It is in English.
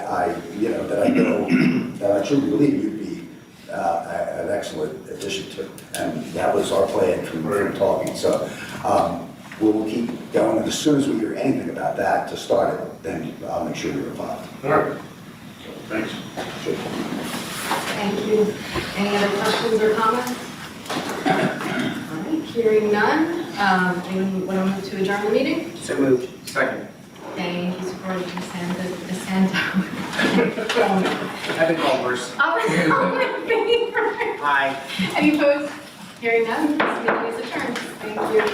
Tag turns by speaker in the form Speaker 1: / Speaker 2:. Speaker 1: I, you know, that I know, that I truly believe you'd be uh, a- an excellent addition to. And that was our plan from from talking, so um, we'll keep going. And as soon as we hear anything about that to start it, then I'll make sure you're involved.
Speaker 2: All right. Thanks.
Speaker 1: Sure.
Speaker 3: Thank you. Any other questions or comments? All right, hearing none, um, anyone want to move to adjourn the meeting?
Speaker 4: So moved. Second.
Speaker 3: Thank you, Supervisor DeSanto- DeSanto.
Speaker 4: I've been called worse.
Speaker 3: All in- all in favor?
Speaker 4: Aye.
Speaker 3: Any opposed? Hearing none, this meeting is adjourned. Thank you.